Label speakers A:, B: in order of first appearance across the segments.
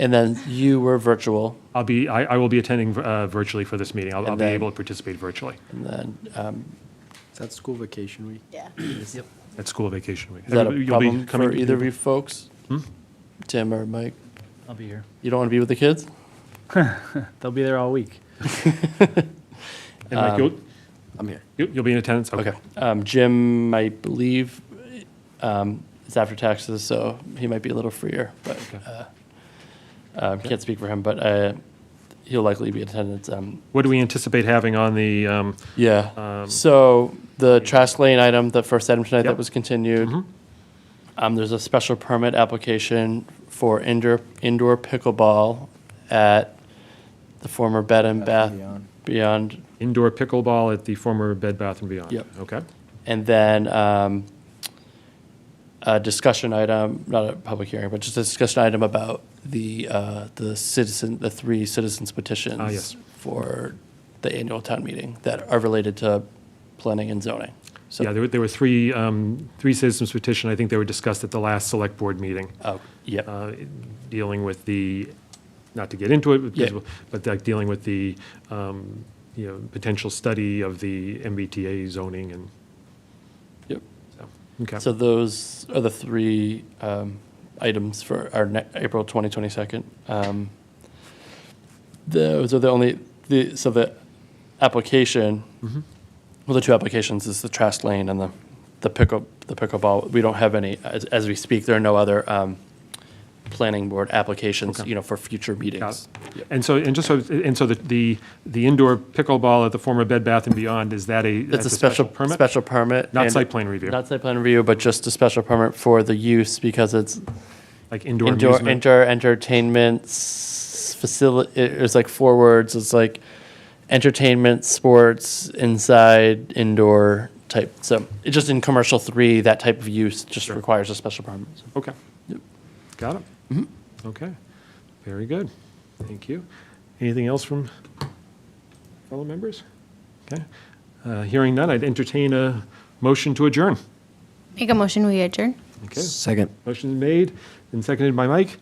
A: And then you were virtual,
B: I'll be, I, I will be attending uh, virtually for this meeting. I'll, I'll
A: And
B: be
A: then-
B: able to participate virtually
A: and then, um,
C: Is that school vacation week?
D: Yeah.
B: at school vacation week.
A: is that
B: Everybody-
A: a
B: you'll be
A: problem
B: coming- Hmm?
A: for either of you folks? Tim or Mike?
E: I'll be here.
A: You don't want to be with the kids?
E: They'll be there all week.
B: And Mike, you'll,
C: I'm here.
B: you'll you'll be in attendance?
A: Um, Okay. Um, Jim, I believe, um, is after taxes, so he might be a little freer, but, uh, um, can't speak for him, but, uh, he'll likely be in attendance. Um,
B: What do we anticipate having on the, um,
A: yeah.
B: Um,
A: So the trash lane item, the first item tonight that
B: Yep. Mm-hmm.
A: was continued. Um, there's a special permit application for indoor, indoor pickleball at the former Bed and Bath Beyond
B: indoor pickleball at the former Bed Bath and Beyond?
A: Yep.
B: Okay.
A: And then um, a discussion item, not a public hearing, but just a discussion item about the, uh, the citizen, the three citizens petitions.
B: Ah, yes.
A: For the annual town meeting that are related to planning and zoning. So-
B: Yeah, there were, there were three, um, three citizens petition. I think they were discussed at the last select board meeting,
A: Oh, yep,
B: uh, dealing with the, not to get into it,
A: Yeah.
B: but- but like dealing with the, um, you know, potential study of the MBTA zoning and,
A: yep.
B: so, okay.
A: So those are the three um, items for our ne- April 2022. Um, Those are the only, the, so the application,
B: Mm-hmm.
A: well, the two applications is the trash lane and the, the pickle, the pickleball. We don't have any, as, as we speak, there are no other um, planning board applications,
B: Okay.
A: you know, for future meetings.
B: Got it. And so, and just so, and so the- the, the indoor pickleball at the former Bed Bath and Beyond, is that a?
A: It's a special,
B: permit?
A: special permit.
B: Not
A: and-
B: site plan review,
A: Not site plan review, but just a special permit for the use because it's
B: like indoor
A: indoor
B: amusement?
A: indoor entertainment s- facility. It's like four words. It's like entertainment, sports, inside, indoor type. So it just in commercial three, that type of use just
B: Sure.
A: requires a special permit. So-
B: Okay. Got it?
A: Mm-hmm.
B: Okay, very good. Thank you. Anything else from fellow members? Okay. Uh, Hearing none, I'd entertain a motion to adjourn.
F: Make a motion, we adjourn.
B: Okay,
C: Second.
B: motion is made and seconded by Mike.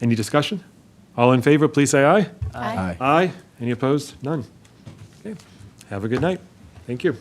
B: Any discussion? All in favor, please say aye.
C: Aye.
B: Aye. Any opposed? None. Okay. Have a good night. Thank you.